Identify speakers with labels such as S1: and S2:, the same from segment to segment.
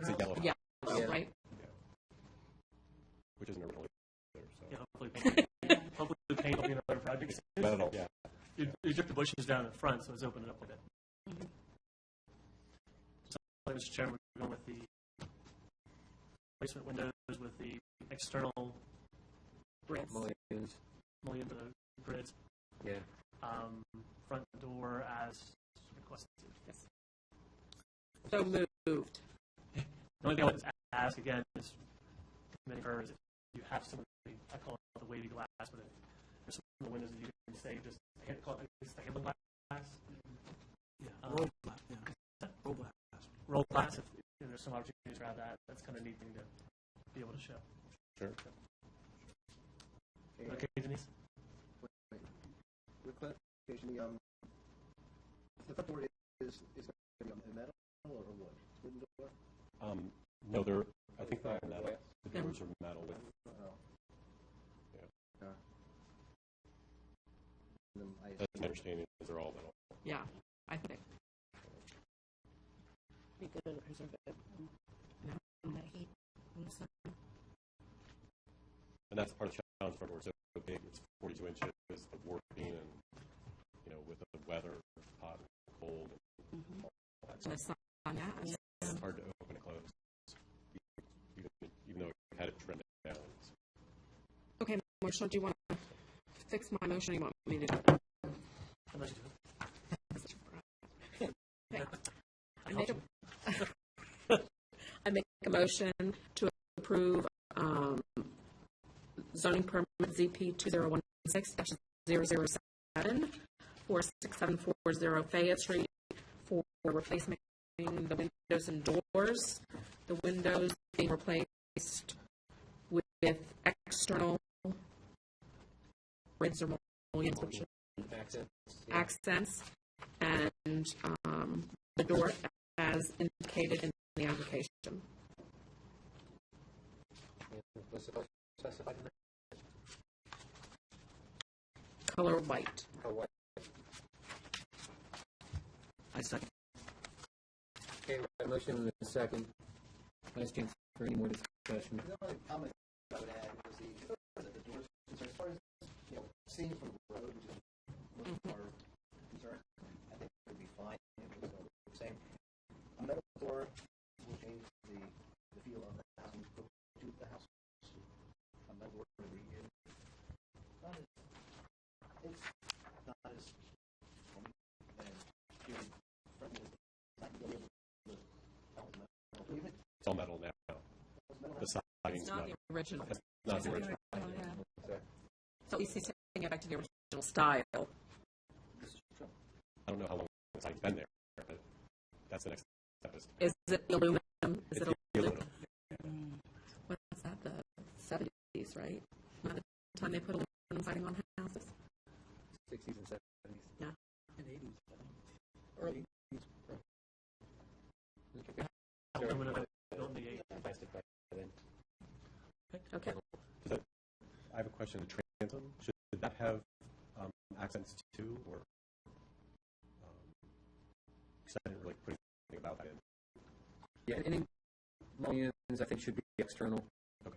S1: It's a yellow,
S2: Yeah,
S3: Yeah.
S2: Oh, right?
S1: which isn't a real either, so.
S4: Yeah, hopefully, paint- hopefully the paint will be another project.
S1: Not at all, yeah.
S4: You, you took the bushes down in front, so it's opening up a bit. So, Mr. Chairman, we're going with the placement windows with the external
S2: Bricks.
S3: Mullions.
S4: mullion for the grids,
S3: Yeah.
S4: um, front door as requested.
S2: Yes. So moved.
S4: The only thing I would ask again is, committee her, is if you have some, of the- I call it the wavy glass, but if there's some of the windows that you can say, just, hand- call it, it's the handle glass. Yeah, roll glass, yeah. Roll glass. Roll glass, if if there's some opportunities around that, that's kind of neat thing to be able to show.
S1: Sure.
S4: Okay, Denise?
S5: With clarification, the, um, the front door is, is going to be metal or wood? Wooden door?
S1: Um, no, they're, I think they're all metal.
S5: glass?
S1: The doors are metal with,
S5: Oh.
S1: Yeah.
S5: Uh, and then I
S1: that's my understanding, is they're all metal.
S2: Yeah, I think. Be good to preserve it. Mm-hmm.
S1: And that's part of the challenge for doors, so big, it's forty-two inches, the warping and, you know, with the weather, hot, cold,
S2: The sun, yeah.
S1: it's hard to open and close. Even, even though it had it trimmed down, it's-
S2: Okay, Marshall, do you want to fix my motion? or You want me to? do
S4: Unless you do.
S2: it? Okay. I make a- I make a motion to approve um, zoning permit ZP 2016-007 for 6740 Fayette Street for replacement the windows and doors. The windows being replaced with external rings or mullions, which
S3: Accent. Yeah.
S2: accents and um, the door as indicated in the application.
S3: Was it specified in the
S2: Color white.
S3: or what?
S2: I second.
S3: Okay, we have a motion and a second. Last chance for any more discussion.
S5: The only comment I would add was the, that the doors, so as far as, you know, seeing from the road, which is what our concern, I think it would be fine, it was all the same. A metal door will change the, the feel of the house, and go to the house. A metal door would be, in- not as, it's not as, um, as, feeling friendly, it's not gonna be able to, metal, even, if
S1: it's all metal now.
S5: it's metal,
S1: The siding's
S2: It's not
S1: metal.
S2: the original.
S1: That's not the original.
S2: So he's taking it back to the original style.
S1: I don't know how long the siding's been there, but that's the next step is
S2: Is it aluminum? Is it
S1: the
S2: aluminum?
S1: aluminum.
S2: What's that, the seventies, right? Not the time they put aluminum siding on houses?
S3: Sixties and seventies.
S2: Yeah.
S3: Early.
S4: Aluminum, I don't need eight.
S3: Plastic by then.
S2: Okay.
S1: I have a question, the transom, should that have um, accents too, or? Because I didn't really put anything about that in.
S3: Yeah, any mullions, I think, should be external.
S4: That's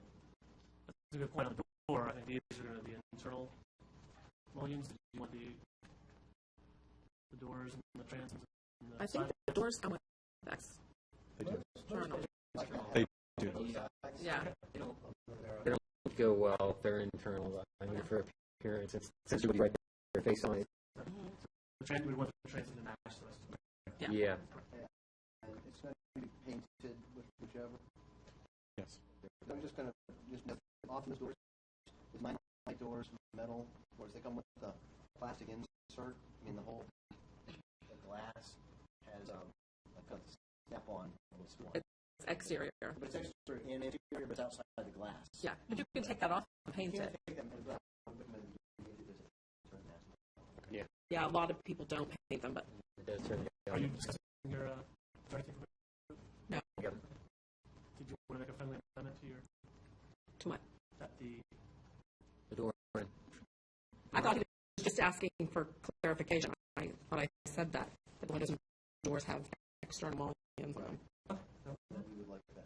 S4: a good point on the door. I think these are going to be internal mullions. Do you want the, the doors and the transoms? and the
S2: I think
S4: side-
S2: the doors come with specs.
S1: They do,
S2: Journal.
S1: do.
S2: Yeah,
S3: Would Go well, if they're internal, I mean, for appearance, it's essentially right there, face on it.
S4: The trans, we want the transom to match the rest of it.
S2: Yeah.
S3: Yeah.
S5: and it's going to be painted with whichever.
S1: yes.
S5: I'm just going to, just note, often those doors, is my, my doors metal, or does they come with the plastic insert? I mean, the whole, the glass has, um, like a snap-on, little screw on.
S2: it's exterior.
S5: But it's exterior and interior, but it's outside the glass.
S2: Yeah, but you can take that off and paint
S5: Yeah,
S2: it.
S5: I think that might be- I'm gonna do this. Turn that.
S2: Yeah, a lot of people don't paint them, but
S3: It does turn
S4: Are you
S3: yellow.
S4: discussing your, uh, is there anything,
S3: Yep.
S4: did you want to make a friendly amendment to your,
S2: too much.
S4: that the,
S3: The door.
S2: I thought he was just asking for clarification. I thought I said that, that the windows and doors have external mullions on them.